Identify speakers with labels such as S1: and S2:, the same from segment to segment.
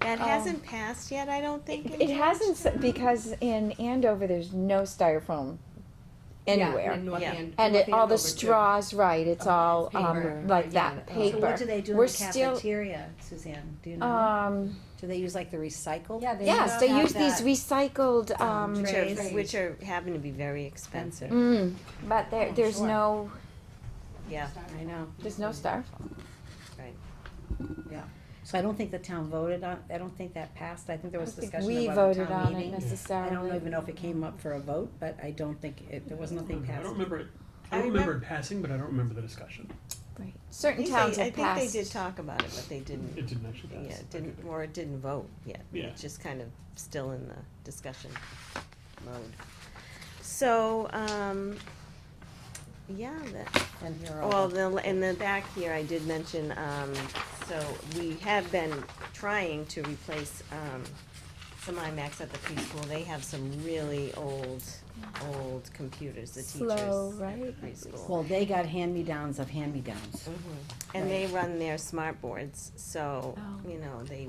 S1: That
S2: Um,
S1: hasn't passed yet, I don't think. in
S2: It hasn't,
S1: Georgetown.
S2: s- because in Andover, there's no styrofoam
S3: Yeah, in
S2: anywhere.
S3: North
S1: Yeah.
S3: Hand-
S2: And it,
S3: North
S2: all the
S3: Andover, too.
S2: straws, right, it's
S3: Oh,
S2: all,
S3: paper.
S2: um, like that,
S3: Yeah.
S4: So what
S2: paper.
S4: do they do in
S2: We're
S4: the
S2: still-
S4: cafeteria, Suzanne? Do you know?
S2: Um,
S4: Do they use like the recycled?
S5: Yeah, they
S2: yes, they use these
S4: recycled
S2: recycled,
S4: um,
S2: um,
S1: Which
S4: trays.
S1: are, which are, happen to be very expensive,
S2: mm, but there,
S4: Oh,
S2: there's
S4: sure.
S2: no,
S1: yeah.
S4: I know.
S2: there's no styrofoam.
S4: So I don't think the town voted on, I don't think that passed. I think there was
S2: I think
S4: discussion
S2: We
S4: about the
S2: voted
S4: town
S2: on it
S4: meeting. I
S2: necessarily.
S4: don't even know if it came up for a vote, but I don't think it, there was nothing
S6: I
S4: passed.
S6: don't remember it,
S1: I
S6: I don't remember
S1: remem-
S6: it passing, but I don't remember the discussion.
S2: Right.
S1: I
S2: Certain
S1: think
S2: towns
S1: they-
S2: have passed.
S1: I think they did talk about it, but they didn't,
S6: It didn't actually pass.
S1: yeah, it
S6: Okay.
S1: didn't, or it didn't vote yet.
S6: Yeah.
S1: It's just kind of still in the discussion mode. So, um, yeah, that,
S4: And here are
S1: Well,
S4: all,
S1: the, in the back here, I did mention, um, so we have been trying to replace, um, some IMAX at the preschool. They have some really old, old computers, the teachers.
S2: Slow,
S1: at the
S2: right?
S1: Preschool.
S4: well, they got hand-me-downs of hand-me-downs.
S1: And they run their smart boards, so,
S2: Oh.
S1: you know, they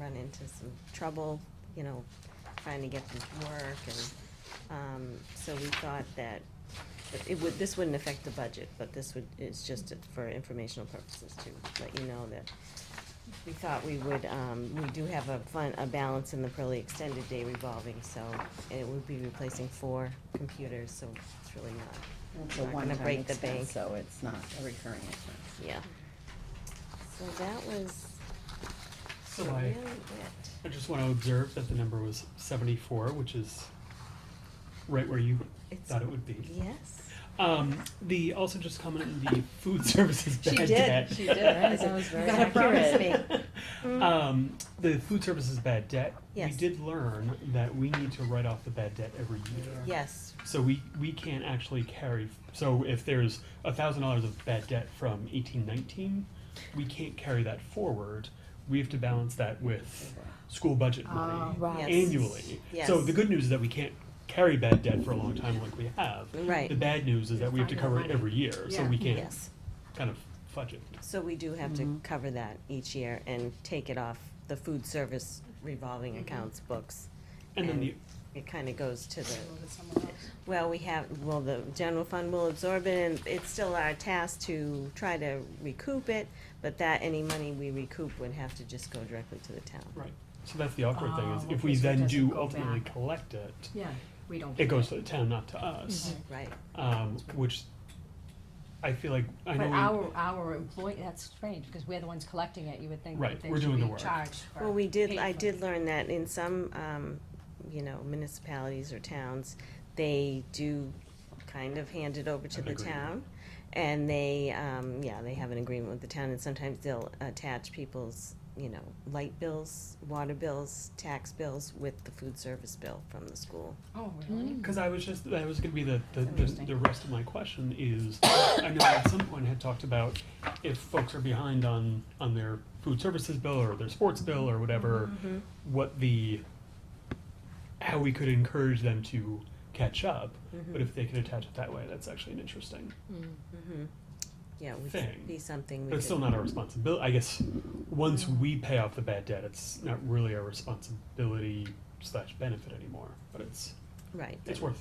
S1: run into some trouble, you know, trying to get them to work and, um, so we thought that it would, this wouldn't affect the budget, but this would, is just for informational purposes to let you know that we thought we would, um, we do have a fun, a balance in the Pearly Extended Day revolving, so it would be replacing four computers, so it's really not
S4: It's a
S1: Not gonna
S4: one-time
S1: break the bank.
S4: expense, so it's not a recurring expense.
S1: Yeah. So that was
S6: So
S1: really
S6: I,
S1: it.
S6: I just wanna observe that the number was seventy-four, which is right where you
S1: It's-
S6: thought it would be.
S1: Yes.
S6: Um, the, also just comment on the food services bad
S1: did,
S6: debt.
S1: she did, right?
S5: That was very
S4: gotta promise me.
S6: Um, the food services bad debt, we
S1: Yes.
S6: did learn that we need to write off the bad debt every year.
S1: Yes.
S6: So we, we can't actually carry, so if there's a thousand dollars of bad debt from eighteen nineteen, we can't carry that forward. We have to balance that with school budget money
S1: Oh,
S2: Right.
S1: Yes.
S6: annually.
S1: Yes.
S6: So the good news is that we can't carry bad debt for a long time like we have.
S1: Right.
S6: The bad news is that we have to
S3: Find out
S6: cover it
S3: money.
S6: every year, so
S3: Yeah.
S6: we can't
S1: Yes.
S6: kind of fudge it.
S1: So we do have to cover that each year and take it off the food service revolving accounts books.
S6: And then
S1: And-
S6: the,
S1: It kind of goes to the, well, we have, well, the general fund will absorb it and it's still our task to try to recoup it. But that, any money we recoup would have to just go directly to the town.
S6: right, so that's the awkward thing, is
S3: Oh,
S6: if we
S3: okay, so it
S6: then
S3: doesn't
S6: do
S3: go
S6: ultimately
S3: back.
S6: collect it,
S3: Yeah, we don't.
S6: it goes to the town, not to us.
S3: Mm-hmm.
S1: Right.
S6: um, which I feel like I know.
S5: But
S6: we-
S5: our, our employee, that's strange, because we're the ones collecting it, you would think
S6: Right,
S5: that they
S6: we're
S5: should
S6: doing the
S5: be
S6: work.
S5: charged for.
S1: Well, we did,
S5: paid
S1: I
S5: for
S1: did
S5: it.
S1: learn that in some, um, you know, municipalities or towns, they do kind of hand it over to
S6: An
S1: the
S6: agreement.
S1: town. And they, um, yeah, they have an agreement with the town and sometimes they'll attach people's, you know, light bills, water bills, tax bills with the food service bill from the school.
S5: Oh, really?
S6: Because I was just that was going to be the the, the,
S5: Interesting.
S6: the rest of my question is I know at some point had talked about if folks are behind on on their food services bill or their sports bill or whatever, what the how we could encourage them to catch up, but if they could attach it that way, that's actually an interesting.
S2: Mm-hmm.
S5: Mm-hmm.
S1: Yeah, it would
S6: Thing.
S1: be something we
S6: But it's still
S1: could,
S6: not our responsibility. I guess once we pay off the bad debt, it's not really our responsibility slash benefit anymore. But it's
S1: right,
S6: it's worth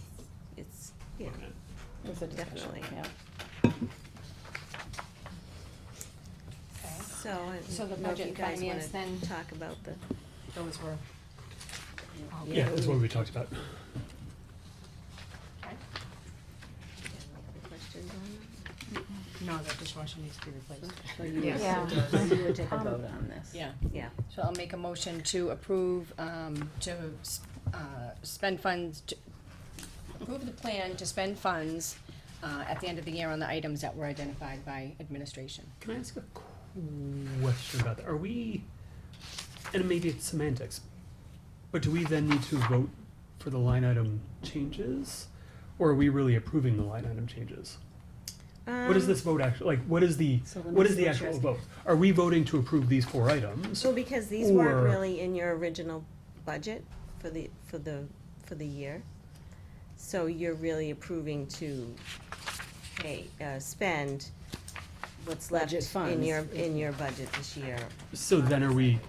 S1: it's, yeah,
S6: looking at.
S4: It's a discussion,
S1: Definitely.
S4: yeah.
S5: Okay.
S1: so I
S5: So the
S1: don't know if
S5: budget
S1: you guys
S5: finance
S1: wanna
S5: then-
S1: talk about the,
S5: Those were. Okay.
S6: Yeah, that's what we talked about.
S1: questions on
S3: No, that dishwasher needs to be replaced.
S4: So you would,
S2: Yeah.
S4: so you would take a
S1: Um,
S4: vote on this.
S3: Yeah,
S1: that? Yeah.
S3: so I'll make a motion to approve, um, to, s- uh, spend funds, to approve the plan to spend funds, uh, at the end of the year on the items that were identified by administration.
S6: Can I ask a question about that? Are we, and maybe it's semantics, but do we then need to vote for the line item changes? Or are we really approving the line item changes? What is
S1: Um,
S6: this vote actually, like, what is the,
S4: So let me
S6: what is
S4: see
S6: the
S4: what you're
S6: actual vote? Are we voting to approve these four items?
S1: So because these weren't
S6: Or-
S1: really in your original budget for the, for the, for the year, so you're really approving to pay, uh, spend what's left
S4: Budget
S1: in
S4: funds.
S1: your, in your budget this year.
S6: So then are we